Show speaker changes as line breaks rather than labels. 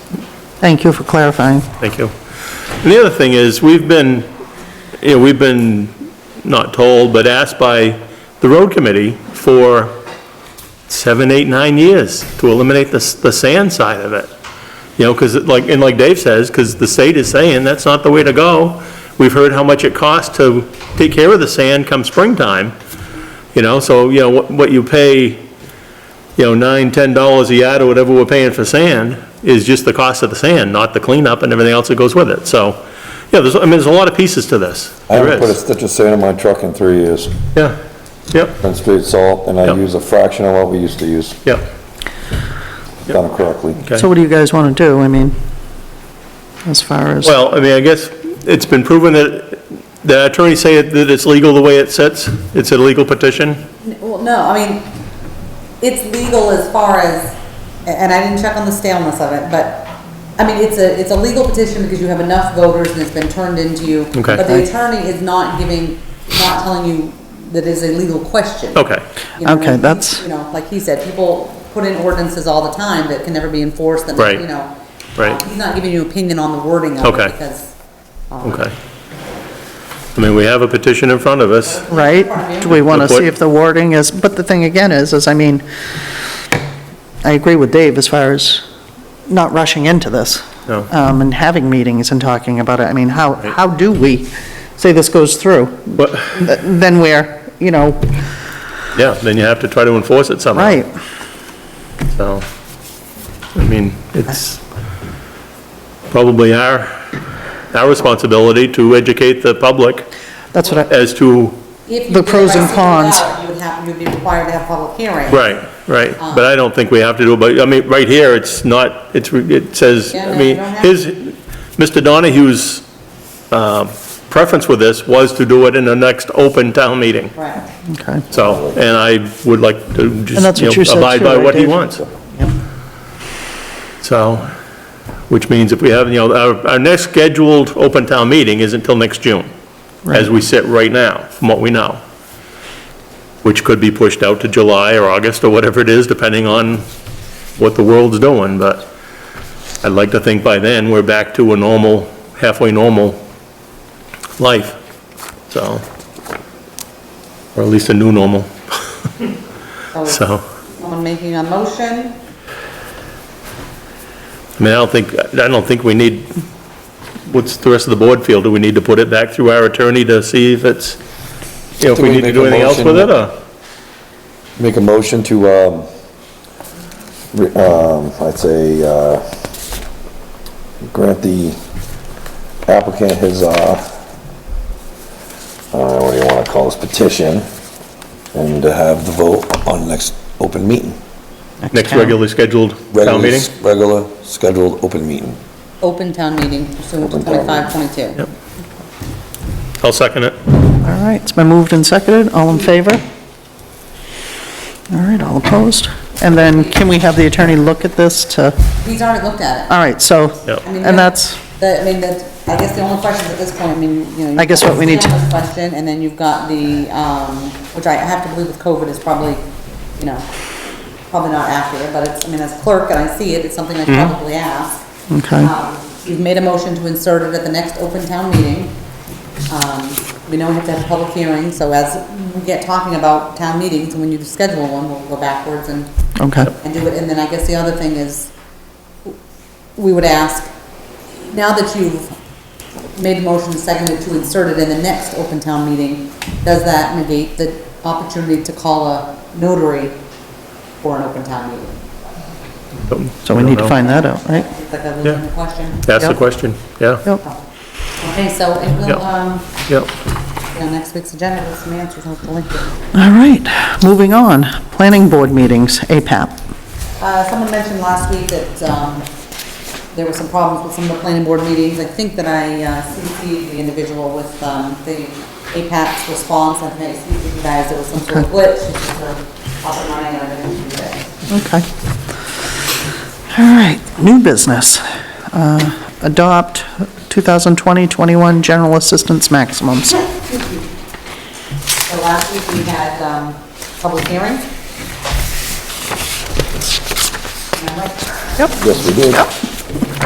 Thank you for clarifying.
Thank you. And the other thing is, we've been, you know, we've been not told, but asked by the road committee for seven, eight, nine years to eliminate the, s- the sand side of it. You know, because like, and like Dave says, because the state is saying that's not the way to go. We've heard how much it costs to take care of the sand come springtime. You know, so, you know, what, what you pay, you know, nine, ten dollars a yard or whatever we're paying for sand is just the cost of the sand, not the cleanup and everything else that goes with it. So, yeah, there's, I mean, there's a lot of pieces to this.
I
There
haven't put a
is.
stitch of sand in my truck in three years,
Yeah, yep,
been straight salt, and I
Yep.
use a fraction of what we used to use,
yep.
done correctly.
So what do you guys want to do? I mean, as far as,
Well, I mean, I guess it's been proven that, the attorneys say it- that it's legal the way it sits. It's a legal petition.
Well, no, I mean, it's legal as far as, and I didn't check on the staleness of it, but, I mean, it's a, it's a legal petition because you have enough voters and it's been turned into you.
Okay.
But the attorney is not giving, not telling you that it's a legal question.
Okay,
You know,
Okay,
and he-
that's-
You know, like he said, people put in ordinances all the time that can never be enforced, and,
Right.
you know.
Right.
He's not giving you opinion on the wording of
Okay.
it because. um,
okay. I mean, we have a petition in front of us.
right? Do we want to see if the wording is, but the thing again is, is I mean, I agree with Dave as far as not rushing into this.
No.
Um, and having meetings and talking about it. I mean, how, how do we, say this goes through,
But,
th- then we're, you know,
yeah, then you have to try to enforce it somehow.
right,
So, I mean, it's probably our, our responsibility to educate the public
that's what I,
as to,
If you
The
did it
pros
by
and
single
cons.
ballot, You would have, you'd be required to have public hearing.
right, right.
Uh-huh.
But I don't think we have to do, it. but, I mean, right here, it's not, it's, it says,
Yeah,
I
no,
mean,
you don't have
his, Mr. Donahue's, um, preference with this was to do it in the next open town meeting.
Right.
okay.
So, and I would like to
And that's what
just, you
you
know,
said
abide
too,
by
right,
what he
Dave?
wants.
Yep.
So, which means if we have, you know, our, our next scheduled open town meeting isn't until next June, as we sit right now, from what we know, which could be pushed out to July or August or whatever it is, depending on what the world's doing, but I'd like to think by then, we're back to a normal, halfway normal life, so, or at least a new normal,
So,
so.
someone making a motion,
I mean, I don't think, I don't think we need, what's the rest of the board feel? Do we need to put it back through our attorney to see if it's, you know, if
Do
we
we
need to
make
do
a
anything else with
motion?
it, or?
Make a motion to, um, re- um, I'd say, uh, grant the applicant his, uh, I don't know what do you wanna call this, petition, and to have the vote on next open meeting.
Next
town.
regularly scheduled town
Regular-
meeting?
Regular scheduled open meeting.
open town meeting pursuant to
Open town meeting.
twenty-five, twenty-two.
Yep. I'll second it.
All right, it's been moved and seconded, all in favor? All right, all opposed? And then can we have the attorney look at this to,
He's already looked at it.
all right, so,
Yep.
I
and
mean, yeah,
that's,
The, I mean, that, I guess the only questions at this point, I mean, you know.
I guess what we need to-
you've got the Question, and then you've got the, um, which I have to believe with COVID is probably, you know, probably not accurate, but it's, I mean, as clerk and I see it, it's something I probably ask.
Mm-hmm. Okay.
Um, You've made a motion to insert it at the next open town meeting. Um, We know we have to have a public hearing, so as we get talking about town meetings, and when you schedule one, we'll go backwards and,
okay,
and do it. And then I guess the other thing is, we would ask, now that you've made a motion seconded to insert it in the next open town meeting, does that negate the opportunity to call a notary for an open town meeting?
so we need to find that out, right?
It's like a legitimate question.
Ask the
Yep.
question, yeah,
Yep,
Okay, so it
Yep.
will, um,
yeah.
Yeah, next week's agenda with some answers, hopefully.
all right, moving on, planning board meetings, APAP.
Uh, someone mentioned last week that, um, there were some problems with some of the planning board meetings. I think that I uh, CC'd the individual with, um, the APAC's response. I think I CC'd you guys, there was some sort of glitch, it's just sort of up and running, and I didn't do that.
Okay. All right, new business. Uh, Adopt 2020-21 general assistance maximums.
So last week we had, um, public hearing. Remember?
Yes, we did.